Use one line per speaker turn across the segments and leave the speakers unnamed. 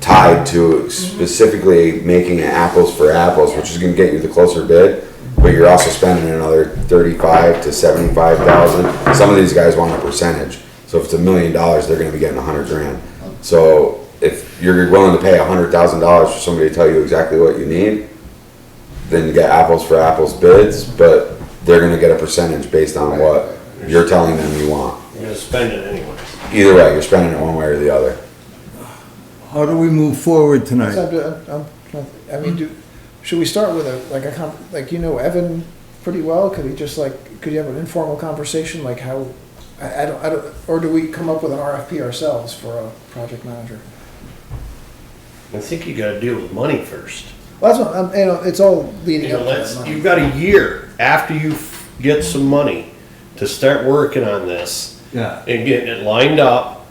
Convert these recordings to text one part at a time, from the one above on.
tied to specifically making it apples for apples, which is gonna get you the closer bid, but you're also spending another thirty-five to seventy-five thousand. Some of these guys want a percentage, so if it's a million dollars, they're gonna be getting a hundred grand. So if you're willing to pay a hundred thousand dollars for somebody to tell you exactly what you need, then you get apples for apples bids, but they're gonna get a percentage based on what you're telling them you want.
You're gonna spend it anyway.
Either way, you're spending it one way or the other.
How do we move forward tonight?
So I'm ju- I'm- I'm trying- I mean, do, should we start with a, like a, con- like, you know Evan pretty well? Could he just like, could you have an informal conversation, like how, I, I don't, I don't, or do we come up with an RFP ourselves for a project manager?
I think you gotta deal with money first.
Well, that's what, I'm- you know, it's all
You
leading
know,
up to
let's,
that
you've
money.
got a year after you f- get some money to start working on this
Yeah.
and getting it lined up.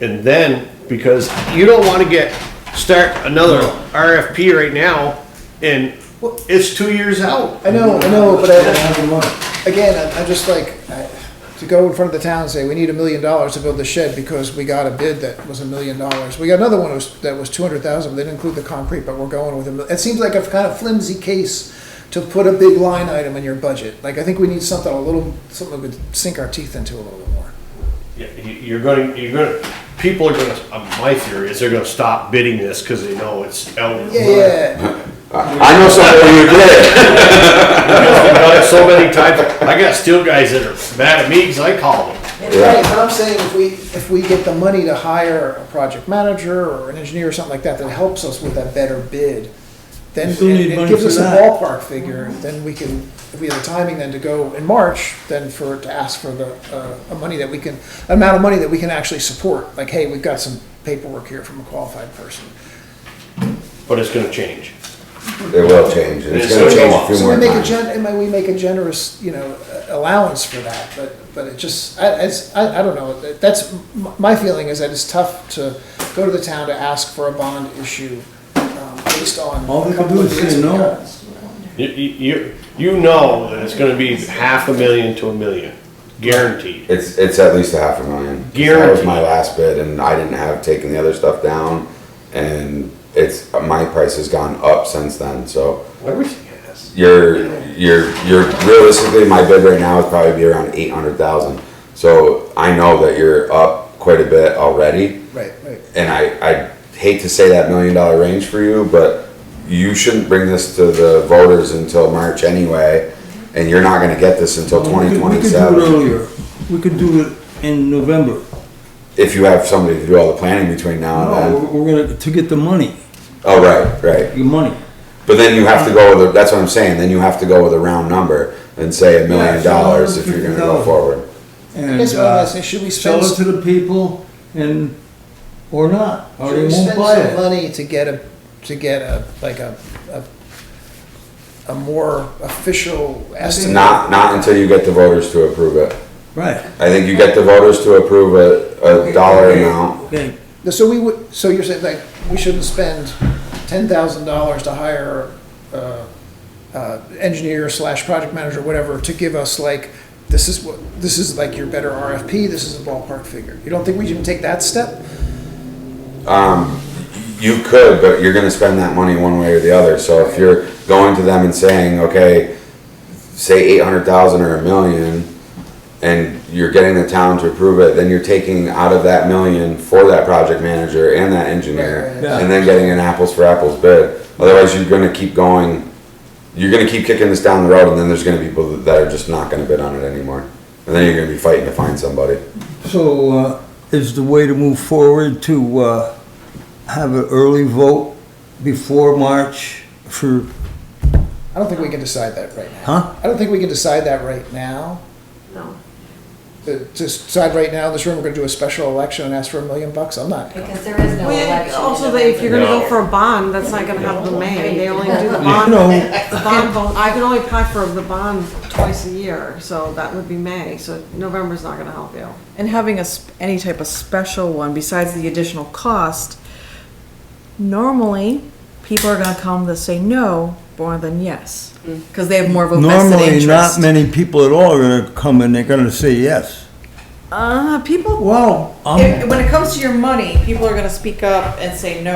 And then, because you don't wanna get, start another RFP right now and it's two years out.
I know, I know, but I, again, I- I'm just like, I- to go in front of the town and say, we need a million dollars to build the shed because we got a bid that was a million dollars. We got another one that was, that was two hundred thousand, but they didn't include the concrete, but we're going with a mil- it seems like a kind of flimsy case to put a big line item in your budget. Like, I think we need something a little, something we could sink our teeth into a little bit more.
Yeah, you- You're gonna, you're gonna, people are gonna, uh, my theory is they're gonna stop bidding this because they know it's out. of
Yeah,
money.
yeah,
I know somebody who did.
I've done it so many times. I got steel guys that are mad at me because I call them.
right, but I'm saying if we, if we get the money to hire a project manager or an engineer or something like that, that helps us with that better bid, then
We still need
it it
money
gives
for
us a
that.
ballpark figure, then we can, if we have the timing then to go in March, then for, to ask for the, uh, a money that we can, amount of money that we can actually support, like, hey, we've got some paperwork here from a qualified person.
But it's gonna change.
It will change, and it's gonna change a few
So
more
we make a
times.
gen, and we make a generous, you know, allowance for that, but, but it just, I, it's, I, I don't know, that's, m- my feeling is that it's tough to go to the town to ask for a bond issue, um, based on.
All
a
they can
couple
do
of
is
bids
say
we
no.
got.
You, you, you know that it's gonna be half a million to a million, guaranteed.
It's, it's at least a half a million. That was my last bid, and I didn't have taken the other stuff down, and it's, my price has gone up since then, so.
Everything has.
You're, you're, you're realistically, my bid right now is probably be around eight hundred thousand. So I know that you're up quite a bit already.
Right, right.
and I, I hate to say that million dollar range for you, but you shouldn't bring this to the voters until March anyway, and you're not gonna get this until
We
twenty
could- we could do it
twenty-seven.
earlier. We could do it in November.
If you have somebody to do all the planning between now
No,
and then.
we're- we're gonna, to get the money,
Oh, right, right.
your money.
But then you have to go with, a- that's what I'm saying, then you have to go with a round number and say a
Yeah,
million
it's
dollars if you're gonna go
$150,000.
forward.
And
That's what
uh,
I'm saying, should we spend,
sell it to
should
the people and, or not, or they
we
won't
spend
buy
some
it.
money to get a, to get a, like a, a, a more official estimate?
Not, not until you get the voters to approve it.
Right.
I think you get the voters to approve a, a dollar amount.
Okay,
So we would, so you're saying like, we shouldn't spend ten thousand dollars to hire, uh, uh, engineer slash project manager, whatever, to give us like, this is what, this is like your better RFP, this is a ballpark figure. You don't think we should take that step?
You could, but you're gonna spend that money one way or the other, so if you're going to them and saying, okay, say eight hundred thousand or a million, and you're getting the town to approve it, then you're taking out of that million for that project manager and that engineer,
Right,
right, right.
and then getting an apples for apples bid, otherwise you're gonna keep going, you're gonna keep kicking this down the road, and then there's gonna be people that are just not gonna bid on it anymore, and then you're gonna be fighting to find somebody.
so, uh, is the way to move forward to, uh, have an early vote before March for,
I don't think we can decide that right now.
huh?
I don't think we can decide that right now.
No,
To to decide right now, in this room, we're gonna do a special election and ask for a million bucks, I'm not.
because there is no
Well,
election.
yeah, Also, they- if you're gonna
No.
go for a bond, that's not gonna happen in May, they only do the
You
bond,
know,
the bond, vote- I can only apply for the bond twice a year, so that would be May, so November's not gonna help you.
And having a, sp- any type of special one besides the additional cost, normally people are going to come to say no more than yes because they have more of a vested
normally
interest.
not many people at all are gonna come and they're gonna say yes.
uh, people,
Well, um, I'm.
if- when it comes to your money, people are going to speak up and say no.